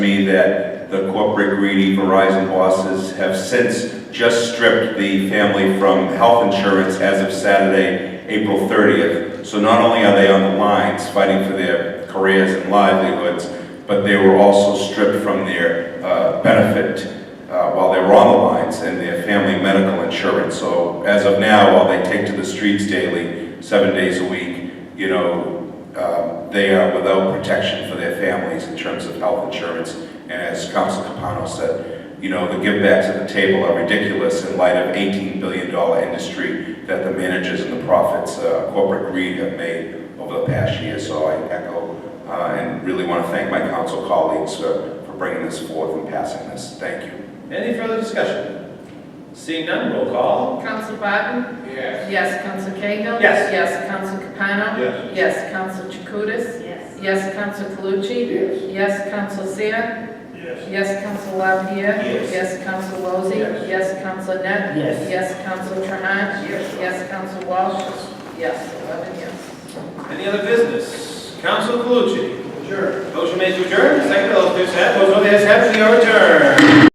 that the corporate greedy Verizon bosses have since just stripped the family from health insurance as of Saturday, April 30th. So not only are they on the lines fighting for their careers and livelihoods, but they were also stripped from their uh, benefit uh, while they were on the lines and their family medical insurance. So as of now, while they take to the streets daily, seven days a week, you know, um, they are without protection for their families in terms of health insurance. And as Council Capano said, you know, the givebacks at the table are ridiculous in light of $18 billion industry that the managers and the profits, uh, corporate greed have made over the past year. So I echo uh, and really want to thank my council colleagues for for bringing this forth and passing this. Thank you. Any further discussion? Seeing none, roll call. Counsel Barton? Yes. Yes. Counsel Cahill? Yes. Yes. Counsel Capano? Yes. Yes. Counsel Chakutis? yes, Yes. Counsel Calucci? Yes. Yes. Counsel Seer? Yes. Yes. Counsel Lapierre? Yes. Yes. Counsel Lozey? Yes. Yes. Counsel Net? Yes. Yes. Counsel Trahan? Yes. Yes. Counsel Walsh? Yes. Eleven yes. Any other business? Council Calucci. Sure. Motion made to adjourn, second, all those in favor say aye. Those opposed, ayes have it, we are adjourned.